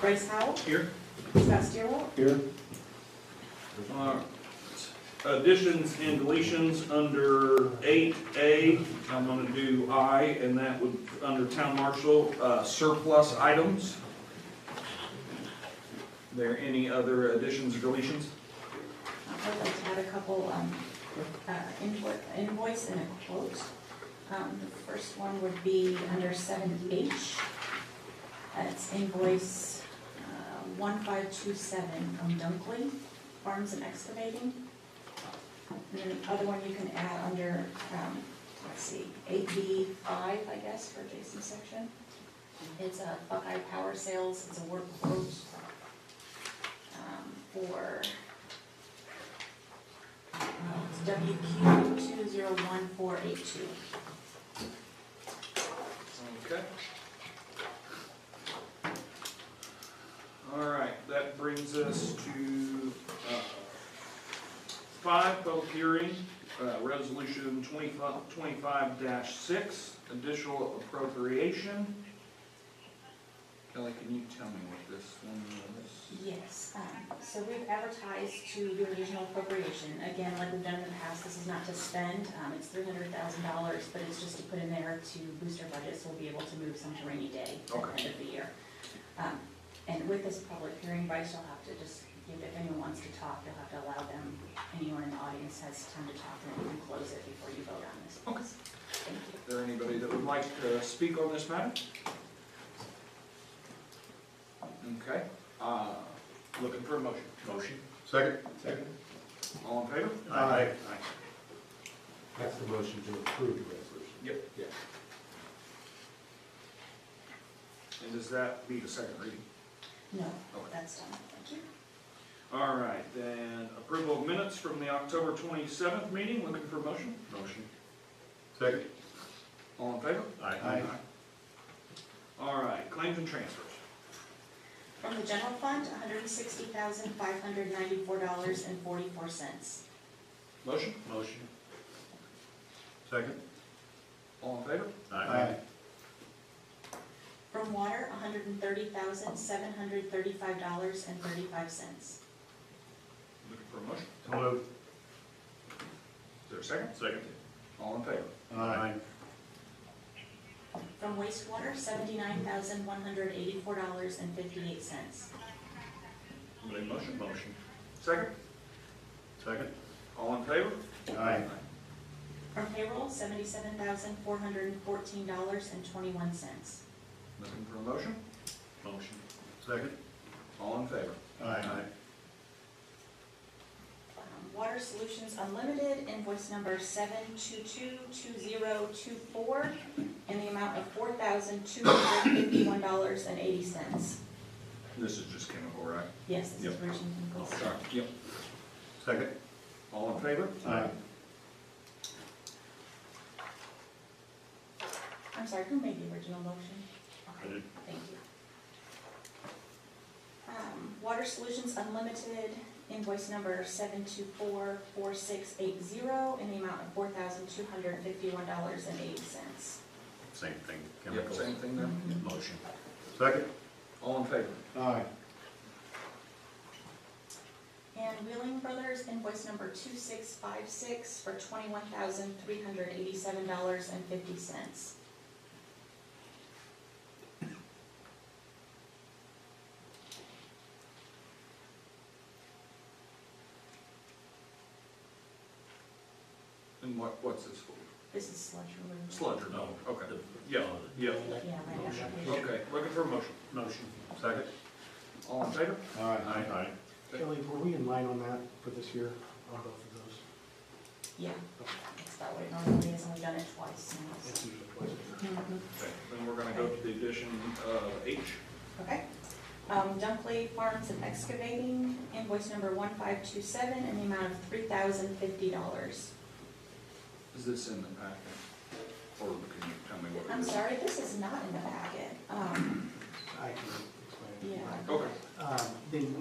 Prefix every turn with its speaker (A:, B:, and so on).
A: Bryce Howell,
B: Here.
A: Scott Stierwald,
C: Here.
B: All right. Additions and deletions under eight A, I'm gonna do I, and that would, under town marshal, uh, surplus items. There any other additions or deletions?
A: I'd like to add a couple um, uh, invo- invoice and a quote. Um, The first one would be under seven H. That's invoice uh, one five two seven from Dunkley Farms and Excavating. And then the other one you can add under, um, let's see, eight B five, I guess, for Jason's section. It's a Buckeye Power Sales, it's a work quote um, for WQ two zero one four eight two.
B: Okay. All right, that brings us to, uh, five, public hearing, uh, resolution twenty-five, twenty-five dash six, additional appropriation. Kelly, can you tell me what this one is?
A: Yes, um, so we've advertised to do additional appropriation, again, like we've done in the past, this is not to spend, um, it's three hundred thousand dollars, but it's just to put in there to boost our budget, so we'll be able to move some to rainy day at the
B: Okay.
A: end of the year. Um, and with this public hearing, Bryce will have to just give, if anyone wants to talk, you'll have to allow them, anyone in the audience has time to talk, and then we can close it before you vote on this.
B: Okay.
A: Thank you.
B: Is there anybody that would like to speak on this matter? Okay, uh, looking for a motion.
D: Motion?
C: Second? Second.
B: All in favor?
C: Aye.
B: Aye.
D: That's the motion to approve the resolution.
B: Yep.
D: Yeah.
B: And does that be the second reading?
A: No,
B: Okay.
A: that's done, thank you.
B: All right, then approval of minutes from the October twenty-seventh meeting, looking for a motion?
D: Motion?
C: Second.
B: All in favor?
C: Aye.
B: All right, claims and transfers.
A: From the general fund, hundred and sixty thousand, five hundred ninety-four dollars and forty-four cents.
B: Motion?
D: Motion?
C: Second?
B: All in favor?
A: From water, hundred and thirty thousand, seven hundred thirty-five dollars and thirty-five cents.
B: Looking for a motion?
C: So moved.
B: Is there a second?
D: Second?
B: All in favor?
C: Aye.
A: From wastewater, seventy-nine thousand, one hundred eighty-four dollars and fifty-eight cents.
B: Any motion?
D: Motion?
B: Second?
C: Second?
B: All in favor?
C: Aye.
A: From payroll, seventy-seven thousand, four hundred and fourteen dollars and twenty-one cents.
B: Looking for a motion?
D: Motion?
C: Second?
B: All in favor?
C: Aye.
A: Water Solutions Unlimited, invoice number seven two two two zero two four, in the amount of four thousand two hundred fifty-one dollars and eighty cents.
B: This is just chemical, right?
A: Yes, this is
B: Yep.
A: Virgin Chemicals.
B: Sorry. Yep.
C: Second?
B: All in favor?
C: Aye.
A: I'm sorry, who made the original motion?
D: I did.
A: Thank you. Um, Water Solutions Unlimited, invoice number seven two four four six eight zero, in the amount of four thousand two hundred fifty-one dollars and eighty cents.
D: Same thing,
B: Yep,
D: chemicals.
B: same thing there?
C: Mm-hmm.
D: Motion?
C: Second?
B: All in favor?
C: Aye.
A: And Wheeling Brothers invoice number two six five six for twenty-one thousand three hundred eighty-seven dollars and fifty cents.
B: And what, what's this for?
A: This is sludge removal.
B: Sludge or no? Okay. Yeah, yeah.
A: Yeah, my
D: Motion.
A: application.
B: Okay, looking for a motion.
D: Motion?
C: Second?
B: All in favor?
C: Aye.
E: Kelly, were we in line on that for this year, on both of those?
A: Yeah, it's about what it normally is, and we've done it twice now.
E: It's usually twice a year.
A: Mm-hmm.
B: Okay, Then we're gonna go to the addition of H.
A: Okay. Um, Dunkley Farms and Excavating invoice number one five two seven in the amount of three thousand fifty dollars.
B: Is this in the packet? Or can you tell me what it
A: I'm
B: is?
A: sorry, this is not in the packet. Um,
E: I can explain.
A: yeah.
B: Okay.
E: Um, Then